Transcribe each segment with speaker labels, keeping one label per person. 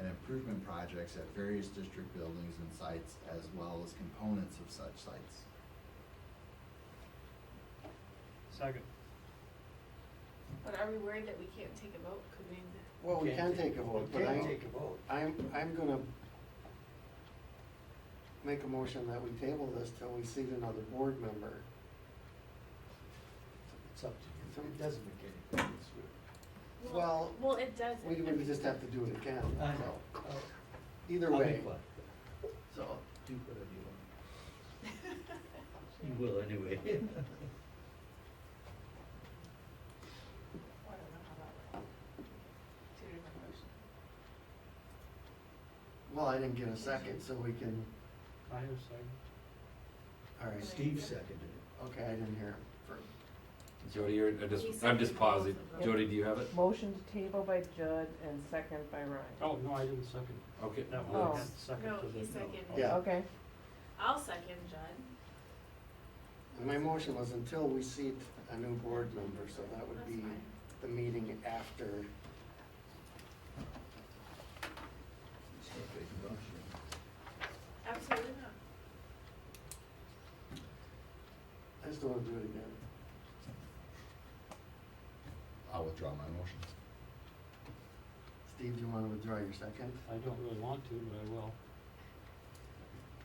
Speaker 1: improvement projects at various district buildings and sites as well as components of such sites.
Speaker 2: Second.
Speaker 3: But are we worried that we can't take a vote? Could we?
Speaker 4: Well, we can take a vote, but
Speaker 5: Can't
Speaker 4: I,
Speaker 5: take a vote.
Speaker 4: I'm, I'm gonna make a motion that we table this till we seat another board member.
Speaker 5: It's up to you. It doesn't make any difference.
Speaker 4: Well,
Speaker 3: Well, it does.
Speaker 4: We would just have to do it again,
Speaker 5: I
Speaker 4: so,
Speaker 5: know.
Speaker 4: either
Speaker 5: I'll
Speaker 4: way,
Speaker 5: make one.
Speaker 4: so.
Speaker 5: Do whatever you want.
Speaker 6: You will anyway.
Speaker 3: I don't know how that went. Two different motions.
Speaker 4: Well, I didn't get a second, so we can,
Speaker 2: I have second.
Speaker 4: all right,
Speaker 5: Steve seconded it.
Speaker 4: okay, I didn't hear him.
Speaker 7: Jody, you're, I
Speaker 3: He
Speaker 7: just,
Speaker 3: said
Speaker 7: I'm just
Speaker 3: he
Speaker 7: pausing.
Speaker 3: wasn't voting.
Speaker 7: Jody, do you have it?
Speaker 8: Motion to table by Judd and second by Ryan.
Speaker 2: Oh, no, I didn't second.
Speaker 7: Okay.
Speaker 2: That
Speaker 8: Oh.
Speaker 2: one, I had second
Speaker 3: No,
Speaker 2: to the.
Speaker 3: he seconded.
Speaker 2: Oh.
Speaker 4: Yeah.
Speaker 8: Okay,
Speaker 3: I'll second Judd.
Speaker 4: And my motion was until we seat a new board member, so that would
Speaker 3: That's
Speaker 4: be
Speaker 3: fine.
Speaker 4: the meeting after.
Speaker 5: It's no big rush.
Speaker 3: Absolutely not.
Speaker 4: I just don't wanna do it again.
Speaker 1: I'll withdraw my motion.
Speaker 4: Steve, do you wanna withdraw your second?
Speaker 2: I don't really want to, but I will.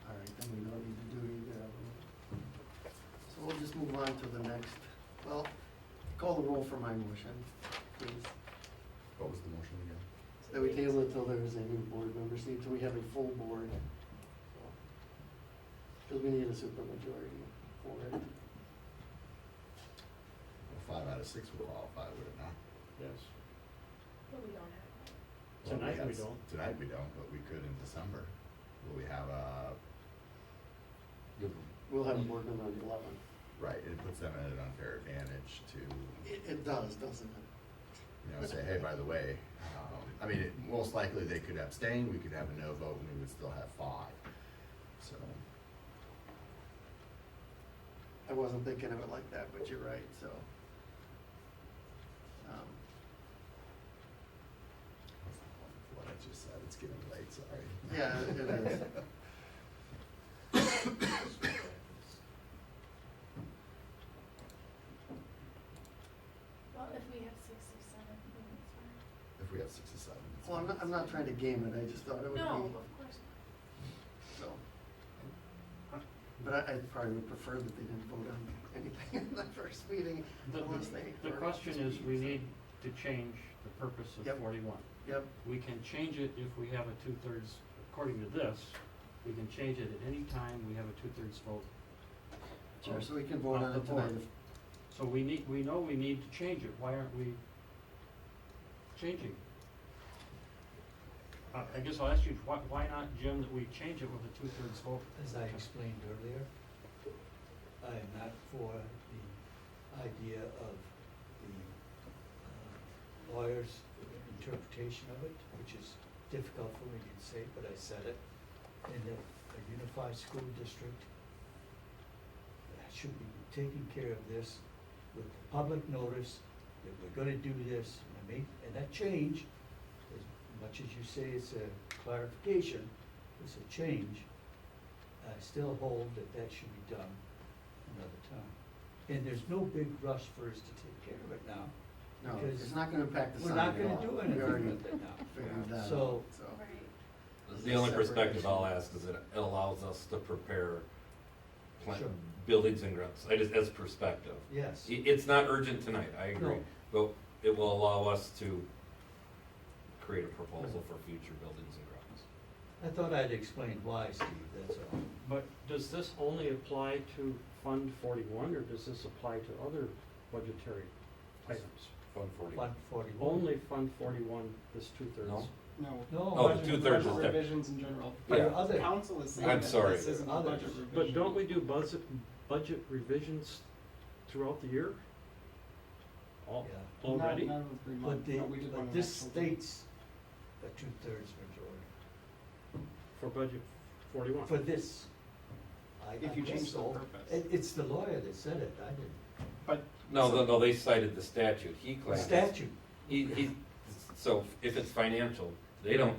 Speaker 4: All right, then we don't need to do either of them. So we'll just move on to the next, well, call the roll for my motion, please.
Speaker 1: What was the motion again?
Speaker 4: That we table it till there is a new board member, see, till we have a full board. Because we need a supermajority for it.
Speaker 1: Well, Five out of six would qualify, would it not?
Speaker 2: Yes.
Speaker 3: But we don't have.
Speaker 1: Well,
Speaker 2: Tonight we
Speaker 1: yes.
Speaker 2: don't.
Speaker 1: Tonight we don't, but we could in December. Will we have a,
Speaker 7: You'll-
Speaker 4: We'll have a board member on the eleven.
Speaker 1: right, it puts them at an unfair advantage to, you
Speaker 4: It, it does, doesn't it?
Speaker 1: know, say, hey, by the way, um, I mean, it- most likely they could abstain, we could have a no vote, and we would still have five. So,
Speaker 4: I wasn't thinking of it like that, but you're right, so. Um,
Speaker 1: what I just said, it's getting late, sorry.
Speaker 4: Yeah, it is.
Speaker 3: Well, if we have sixty-seven, then it's fine.
Speaker 1: If we have six or seven. it's
Speaker 4: Well, I'm not, I'm not trying to game it, I just thought it would be.
Speaker 3: No, of course not.
Speaker 4: So. But I, I probably would prefer that they didn't vote on anything in the first meeting
Speaker 2: The,
Speaker 4: unless they.
Speaker 2: the
Speaker 4: were-
Speaker 2: question is, we need to change the purpose
Speaker 4: Yep.
Speaker 2: of forty-one.
Speaker 4: Yep,
Speaker 2: We can change it if we have a two-thirds, according to this, we can change it at any time we have a two-thirds vote.
Speaker 4: sure, so we can vote on
Speaker 2: Off
Speaker 4: it
Speaker 2: the board.
Speaker 4: tonight.
Speaker 2: So we need, we know we need to change it, why aren't we changing? I, I guess I'll ask you, why, why not, Jim, that we change it with a two-thirds vote?
Speaker 5: As I explained earlier, I am not for the idea of the uh, lawyer's interpretation of it, which is difficult for me to say, but I said it. And that a unified school district should be taking care of this with public notice that we're gonna do this, and make, and that change, as much as you say it's a clarification, it's a change. I still hold that that should be done another time. And there's no big rush for us to take care of it now.
Speaker 4: No,
Speaker 5: because
Speaker 4: it's not gonna impact the
Speaker 5: We're
Speaker 4: sign at all.
Speaker 5: not gonna do
Speaker 4: We already
Speaker 5: anything with it now.
Speaker 4: figured that out, so.
Speaker 5: So-
Speaker 3: Right.
Speaker 7: The only
Speaker 4: Separate
Speaker 7: perspective
Speaker 4: issue.
Speaker 7: I'll ask is it it allows us to prepare plant,
Speaker 5: Sure.
Speaker 7: buildings and grounds, I just, as perspective.
Speaker 5: Yes,
Speaker 7: I- It's not urgent tonight, I agree,
Speaker 5: No.
Speaker 7: but it will allow us to create a proposal for future buildings and grounds.
Speaker 5: I thought I'd explained why, Steve, that's all.
Speaker 2: But does this only apply to Fund forty-one, or does this apply to other budgetary items?
Speaker 7: Fund forty.
Speaker 5: One forty-one.
Speaker 2: Only Fund forty-one is two-thirds?
Speaker 7: No.
Speaker 9: No.
Speaker 5: No.
Speaker 7: Oh,
Speaker 9: budget-
Speaker 7: two-thirds is
Speaker 9: budget
Speaker 7: different.
Speaker 9: Revisions in general.
Speaker 5: But
Speaker 7: Yeah.
Speaker 9: The
Speaker 5: other,
Speaker 9: council is saying
Speaker 7: I'm
Speaker 9: that
Speaker 7: sorry.
Speaker 9: this isn't a
Speaker 5: Others.
Speaker 9: budget revision.
Speaker 2: But don't we do budget, budget revisions throughout the year?
Speaker 5: yeah,
Speaker 2: Al-
Speaker 9: Not-
Speaker 2: Already?
Speaker 9: Not every
Speaker 5: but
Speaker 9: month,
Speaker 5: the,
Speaker 9: but we did one
Speaker 5: but
Speaker 9: in
Speaker 5: this
Speaker 9: October.
Speaker 5: states a two-thirds majority
Speaker 2: For budget forty-one?
Speaker 5: for this. I, I
Speaker 9: If you
Speaker 5: guess
Speaker 9: change the
Speaker 5: so.
Speaker 9: purpose.
Speaker 5: It, it's the lawyer that said it, I didn't.
Speaker 9: But
Speaker 7: No, no, no, they cited the statute, he claims.
Speaker 5: Statute.
Speaker 7: He, he, so if it's financial, they don't